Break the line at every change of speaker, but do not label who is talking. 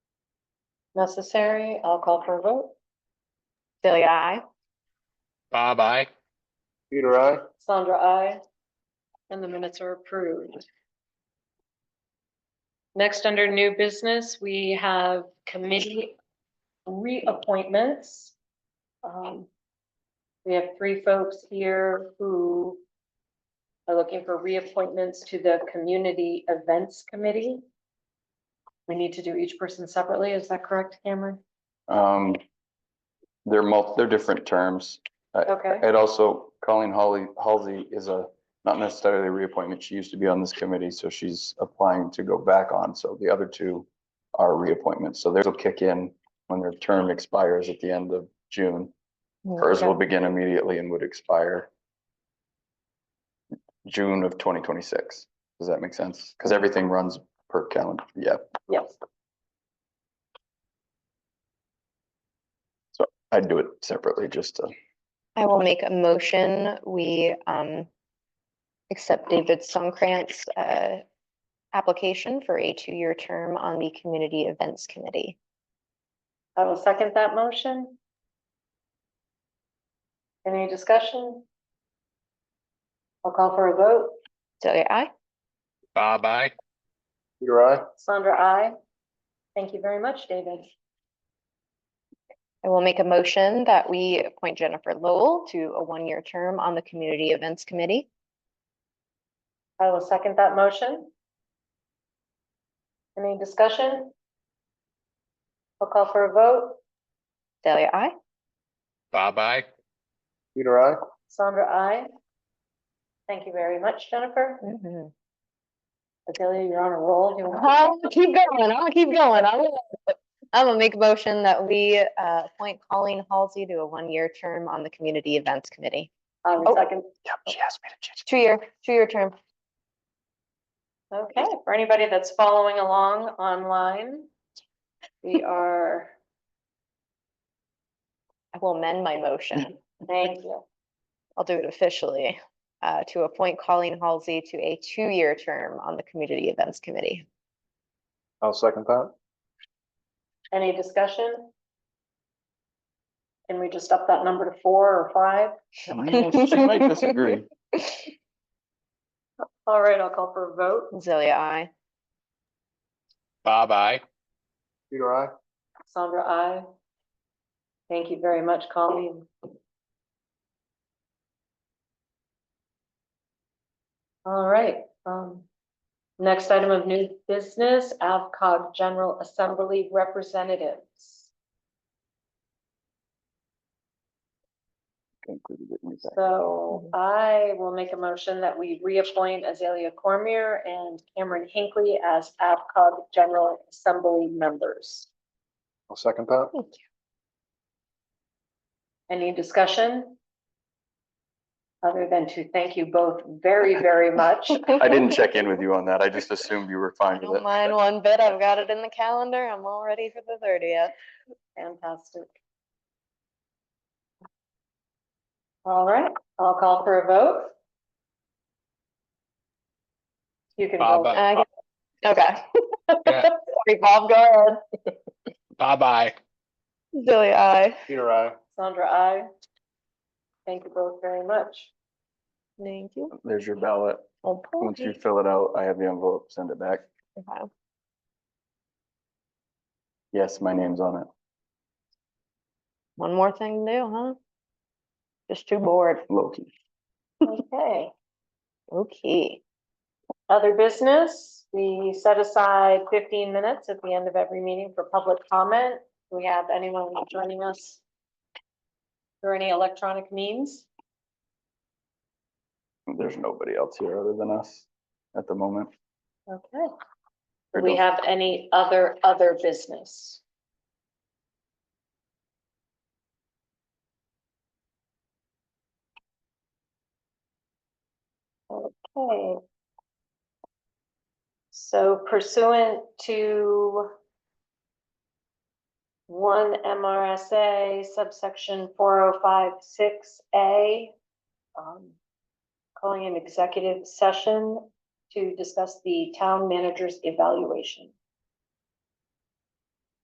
necessary. I'll call for a vote. Celia, I.
Bob, I.
Peter, I.
Sandra, I. And the minutes are approved. Next, under new business, we have committee reappointments. Um, We have three folks here who are looking for reappointments to the Community Events Committee. We need to do each person separately. Is that correct, Cameron?
Um, they're mul, they're different terms.
Okay,
And also Colleen Holly, Halsey is a, not necessarily a reappointment. She used to be on this committee, so she's applying to go back on. So the other two are reappointments. So theirs will kick in when their term expires at the end of June. Hers will begin immediately and would expire June of twenty twenty-six. Does that make sense? Because everything runs per calendar. Yeah.
yes.
I'd do it separately just to.
I will make a motion. We um accept David Songkrantz uh application for a two-year term on the Community Events Committee.
I will second that motion. Any discussion? I'll call for a vote.
Delia, I.
Bob, I.
Peter, I.
Sandra, I. Thank you very much, David.
I will make a motion that we appoint Jennifer Lowell to a one-year term on the Community Events Committee.
I will second that motion. Any discussion? I'll call for a vote.
Delia, I.
Bob, I.
Peter, I.
Sandra, I. Thank you very much, Jennifer.
Mhm.
Adelia, you're on a roll. Do you want-
I'll keep going. I'll keep going. I will. I'm gonna make a motion that we uh appoint Colleen Halsey to a one-year term on the Community Events Committee.
I will
Oh.
second.
Yep, she asked me to change.
Two-year, two-year term.
Okay, for anybody that's following along online, we are,
I will amend my motion.
thank you.
I'll do it officially, uh, to appoint Colleen Halsey to a two-year term on the Community Events Committee.
I'll second that.
Any discussion? Can we just up that number to four or five?
She might disagree.
All right, I'll call for a vote.
Zelia, I.
Bob, I.
Peter, I.
Sandra, I. Thank you very much, Colleen. All right, um, next item of new business, AvCog General Assembly Representatives.
Mm-hmm.
So I will make a motion that we reappoint Azalea Cormier and Cameron Hinckley as AvCog General Assembly members.
I'll second that.
Any discussion? Other than to thank you both very, very much.
I didn't check in with you on that. I just assumed you were
I
fine with
don't
it.
mind one bit. I've got it in the calendar. I'm all ready for the thirtieth.
Fantastic. All right, I'll call for a vote. You can
Bob,
uh,
vote.
I.
Okay.
Yeah.
Sorry, Bob, go ahead.
Bob, I.
Zelia, I.
Peter, I.
Sandra, I. Thank you both very much.
Thank you. Oh,
There's your ballot.
Well,
Once you
point.
fill it out, I have the envelope, send it back.
Okay.
Yes, my name's on it.
One more thing to do, huh? Just too bored.
Loki.
Okay.
Okay.
Other business, we set aside fifteen minutes at the end of every meeting for public comment. Do we have anyone joining us? through any electronic means?
There's nobody else here other than us at the moment.
Okay. Do we have any other, other business? Okay. So pursuant to one MRSA subsection four oh five six A, um, calling an executive session to discuss the town manager's evaluation.